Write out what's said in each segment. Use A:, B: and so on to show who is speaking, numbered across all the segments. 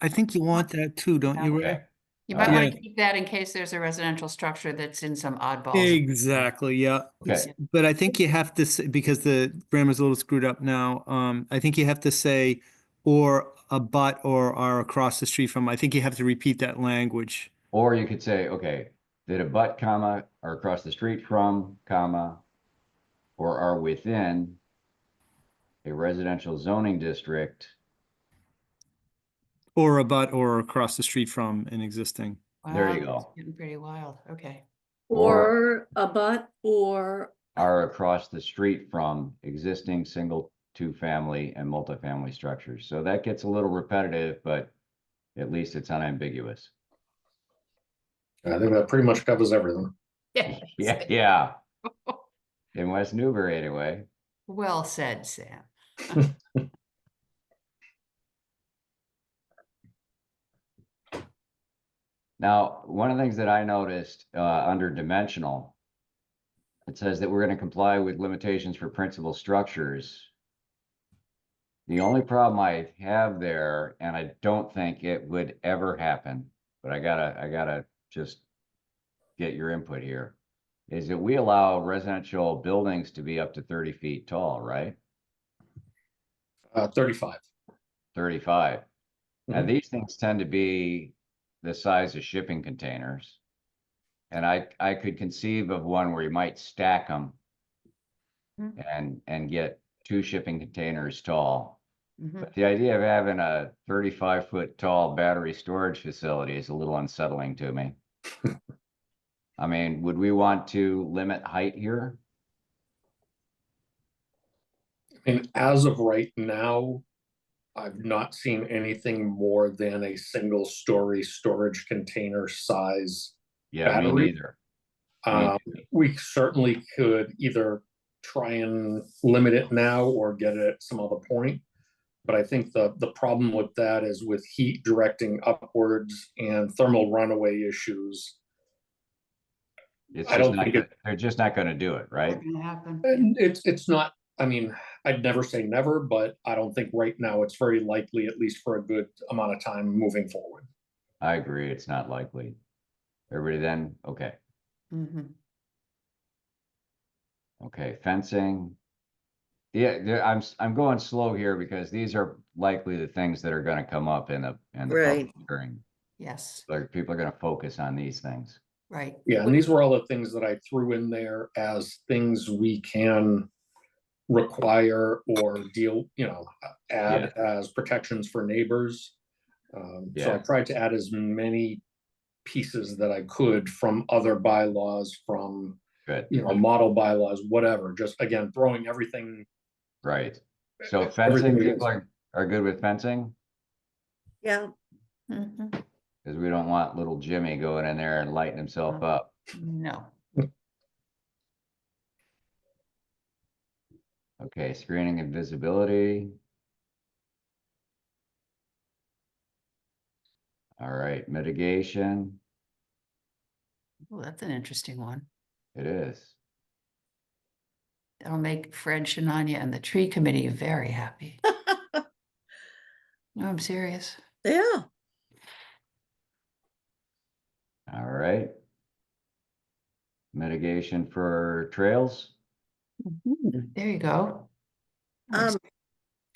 A: I think you want that too, don't you, Ray?
B: Uh,
C: You might want
A: Yeah.
C: to keep that in case there's a residential structure that's in some oddball.
A: Exactly, yeah.
B: Okay.
A: S- But I think you have to, say because the grammar's a little screwed up now, um, I think you have to say or a but or are across the street from, I think you have to repeat that language.
B: Or you could say, okay, that abut comma are across the street from comma or are within a residential zoning district.
A: Or a but or across the street from an existing.
B: There you
C: Wow, it's
B: go.
C: Getting pretty wild, okay.
B: Or-
D: Or a but or,
B: are across the street from existing single, two-family and multifamily structures. So that gets a little repetitive, but at least it's unambiguous.
E: I think that pretty much covers everything.
C: Yeah.
B: Yeah, yeah. In West Newbury anyway.
C: Well said, Sam.
B: Now, one of the things that I noticed, uh, under dimensional, it says that we're gonna comply with limitations for principal structures. The only problem I have there, and I don't think it would ever happen, but I gotta, I gotta just get your input here, is that we allow residential buildings to be up to thirty feet tall, right?
E: Uh, thirty-five.
B: Thirty-five. Now,
E: Mhm.
B: these things tend to be the size of shipping containers. And I, I could conceive of one where you might stack them
C: Mm.
B: and, and get two shipping containers tall.
C: Mhm.
B: But the idea of having a thirty-five foot tall battery storage facility is a little unsettling to me. I mean, would we want to limit height here?
E: And as of right now, I've not seen anything more than a single-story storage container size.
B: Yeah, me
E: Battery?
B: neither. Me
E: Um, we certainly could either try and limit it now or get it at some other point. But I think the, the problem with that is with heat directing upwards and thermal runaway issues.
B: It's
E: I
B: just
E: don't
B: not,
E: think
B: gonna- they're just not gonna do it, right?
C: Not gonna happen.
E: And it's, it's not, I mean, I'd never say never, but I don't think right now it's very likely, at least for a good amount of time moving forward.
B: I agree, it's not likely. Everybody then, okay.
C: Mhm.
B: Okay, fencing. Yeah, there, I'm, s- I'm going slow here because these are likely the things that are gonna come up in the, in the public
D: Right.
B: hearing.
C: Yes,
B: Like, people are gonna focus on these things.
C: right.
E: Yeah,
C: Would-
E: and these were all the things that I threw in there as things we can require or deal, you know, add as protections for neighbors. Um, so I
B: Yeah.
E: tried to add as many pieces that I could from other bylaws, from,
B: Good,
E: you know, model bylaws, whatever, just again, throwing everything.
B: right. So
E: everything
B: fencing,
E: we
B: people
E: can-
B: are, are good with fencing?
D: yeah,
C: Mhm.
B: Cause we don't want little Jimmy going in there and lighting himself
C: Uh,
B: up.
C: No,
B: Okay, screening and visibility. All right, mitigation,
C: well, that's an interesting one.
B: it is.
C: That'll make Fred Shinanya and the tree committee very happy. No, I'm serious.
D: yeah.
B: All right. Mitigation for trails,
C: There you go.
D: Um,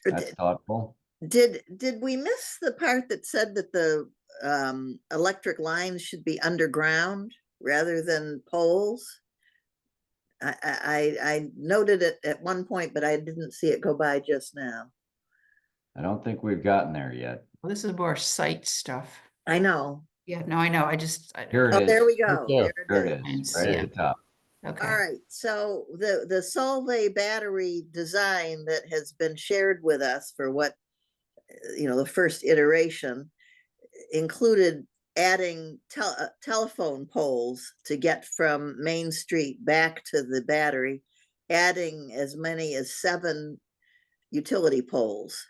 B: that's
D: d-
B: thoughtful.
D: Did, did we miss the part that said that the um, electric lines should be underground rather than poles? I, I, I- I noted it at one point, but I didn't see it go by just now.
B: I don't think we've gotten there yet.
C: This is more site stuff.
D: I know.
C: Yeah, no, I know, I just. I-
B: Here
D: Oh,
B: it
D: there
B: is,
D: we go.
F: there.
D: There
B: here
D: it is.
B: it is,
C: Nice,
B: right
C: yeah.
B: at the top.
C: Okay.
D: All right, so the, the Solvay battery design that has been shared with us for what, uh, you know, the first iteration included adding tel- uh, telephone poles to get from Main Street back to the battery, adding as many as seven utility poles.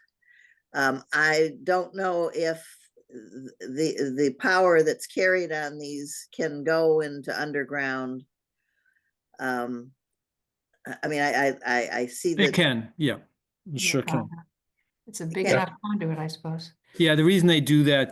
D: Um, I don't know if th- the, the power that's carried on these can go into underground. Um, I, I mean, I, I, I, I see
A: It
D: that,
A: can, yeah, it
C: Yeah, Uh-huh.
A: sure can.
C: It's a big
D: Yeah.
C: enough conduit, I suppose.
A: Yeah, the reason they do that